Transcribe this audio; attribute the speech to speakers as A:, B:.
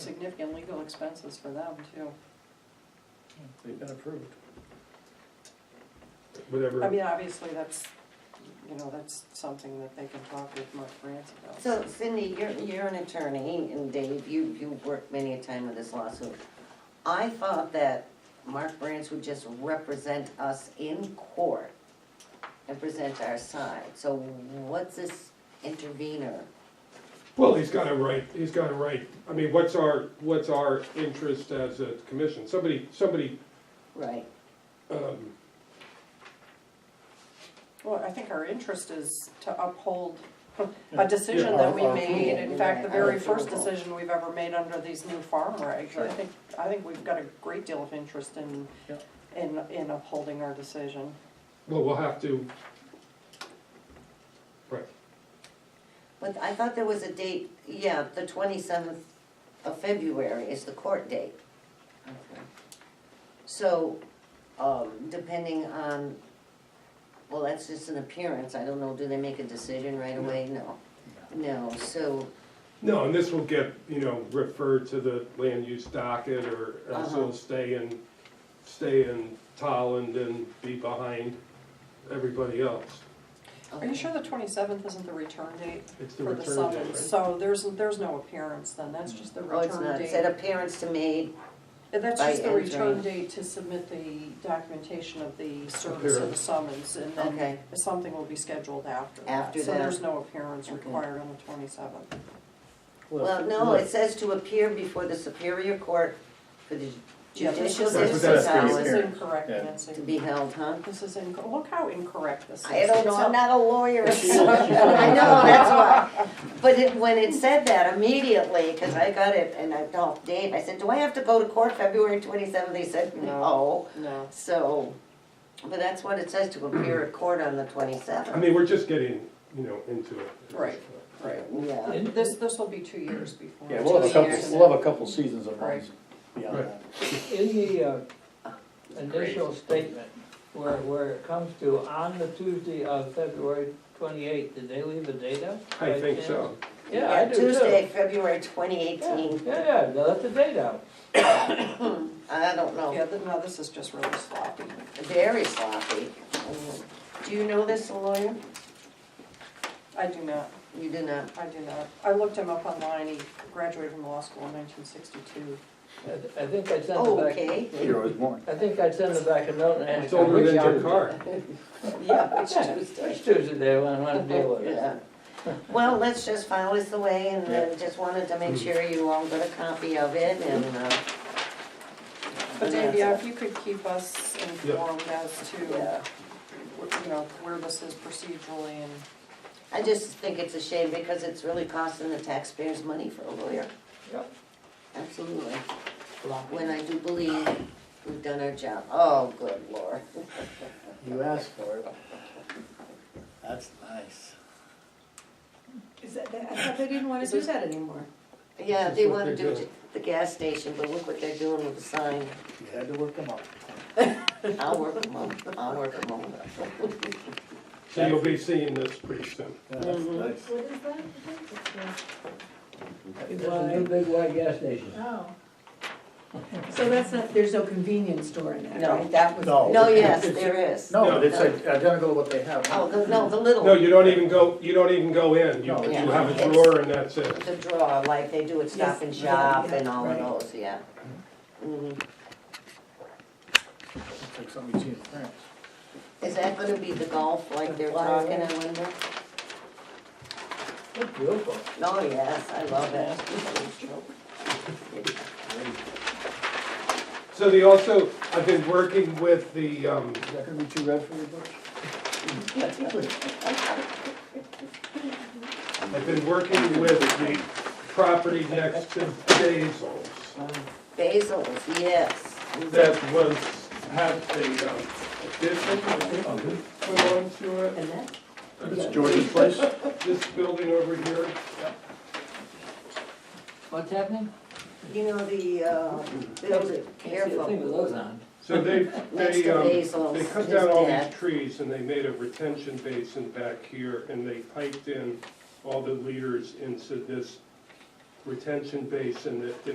A: significant legal expenses for them too.
B: They've been approved.
A: I
C: Whatever,
A: mean, obviously, that's, you know, that's something that they can talk with Mark France about.
D: So Cindy, you're, you're an attorney, and Dave, you, you worked many a time with this lawsuit. I thought that Mark Branch would just represent us in court and present our side. So what's this intervener?
C: well, he's got a right, he's got a right, I mean, what's our, what's our interest as a commission? Somebody, somebody,
D: Right.
C: um,
A: Well, I think our interest is to uphold a decision that we
B: Yeah.
A: made, in fact, the
D: Yeah.
A: very first decision we've ever made under these new farm regs. I think, I think we've got a great deal of interest in,
B: Yeah.
A: in, in upholding our decision.
C: well, we'll have to. Right,
D: But I thought there was a date, yeah, the twenty-seventh of February is the court date. So, um, depending on, well, that's just an appearance, I don't know, do they make a decision right away? No. No, so,
C: no, and this will get, you know, referred to the land use docket, or else
D: Uh-huh.
C: it'll stay in, stay in Tolland and be behind everybody else.
A: Are you sure the twenty-seventh isn't the return date
C: It's the
A: for the
C: return date,
A: summons?
C: right?
A: So there's, there's no appearance then, that's just the
D: oh, it's
A: return
D: not, it said
A: date.
D: appearance to made,
A: And That's
D: by
A: just the return
D: entering.
A: date to submit the documentation of the service of the
C: Appearance.
A: summons, and then
D: Okay.
A: something will be scheduled after that.
D: After
A: So
D: that.
A: there's no appearance
D: Okay.
A: required on the twenty-seventh.
D: well, no, it says to appear before the superior court for the
A: Yeah, this
D: judicial
A: is,
C: That's what
D: district
C: that's for
A: this
D: hours
A: is
B: appearance.
A: incorrect,
B: Yeah.
A: Nancy.
D: to be held, huh?
A: This is inco, look how incorrect this is.
D: I don't know, I'm not a lawyer, so,
B: She's-
D: I
B: she's-
D: know, that's why. But it, when it said that immediately, cause I got it, and I told Dave, I said, do I have to go to court February twenty-seventh? He said, no,
A: No.
D: so, but that's what it says, to appear at court on the
C: I
D: twenty-seventh.
C: mean, we're just getting, you know, into it. at this
A: Right.
C: point.
A: Right.
D: Yeah,
B: And-
A: This, this will be two years before.
B: Yeah, we'll have a
D: Two years.
B: couple, we'll have a couple seasons of
A: Right.
B: runs beyond
C: Right.
B: that.
E: In the uh, initial statement, where, where it comes to, on the Tuesday of February twenty-eighth, did they leave a date out?
C: I think so.
E: Yeah, I do too.
D: Tuesday, February twenty
E: Yeah,
D: eighteen,
E: yeah, yeah, they left the date out.
D: I don't know,
A: Yeah, th- no, this is just really sloppy.
D: very sloppy. Do you know this lawyer?
A: I do not,
D: You do not,
A: I do not. I looked him up online, he graduated from law school in nineteen sixty-two.
E: I th- I think I sent it back,
D: okay,
B: Here was born.
E: I think I sent it back a note and.
C: It's older than your
E: Tuesday.
C: car.
D: yeah, it's
E: Yeah.
D: Tuesday.
E: It's Tuesday, they want, want to deal with it.
D: Yeah. Well, let's just file this away and then just wanted to make sure you all got a copy of it and, uh.
A: But Dave, yeah, if you could keep us informed as to,
D: Yeah.
A: wh- you know, where this is procedurally and,
D: I just think it's a shame because it's really costing the taxpayers money for a lawyer,
E: Yep.
D: absolutely. When I do believe we've done our job. Oh, good lord.
B: You asked for it. That's nice.
F: Is that, I thought they didn't wanna do that anymore.
D: Yeah,
C: This
D: they
C: is what
D: wanna
C: they're
D: do
C: doing.
D: the gas station, but look what they're doing with the sign.
B: You had to work them up.
D: I'll work them up, I'll work them up.
C: So you'll be seeing this pretty soon.
B: That's
D: Mm-hmm.
B: nice.
F: What is that?
E: big white gas station.
F: Oh. So that's not, there's no convenience store in that,
D: No.
F: right? That was.
B: No.
D: No, yes, there is.
B: No, but it's identical to what they have.
D: Oh, the, no, the little.
C: No, you don't even go, you don't even go in. You,
B: No.
C: you
D: Yeah.
C: have a drawer and that's it.
D: The draw, like they do at Stop and
F: Yes.
D: Shop
F: Yeah,
D: and all of
F: right.
D: those, yeah. Mhm.
B: It's like something you see in France.
D: Is that gonna be the golf like they're
E: Why,
D: talking,
E: yeah.
D: I wonder?
E: Look Beautiful.
D: Oh, yes, I love it.
C: So they also, I've been working with the, um,
B: Is that gonna be too red for your bush?
C: I've been working with the property next to Basil's
D: Basils, yes.
C: that was, had the, um, addition I think, put onto it.
F: And that,
B: It's George's place?
C: This building over here,
E: What's happening?
D: You know, the, uh, building,
E: Think of
D: careful.
E: those on.
C: so they,
D: Next
C: they,
D: to
C: um,
D: Basil's,
C: They cut
D: his
C: down all
D: dad.
C: these trees and they made a retention basin back here and they piped in all the leaders into this retention basin that didn't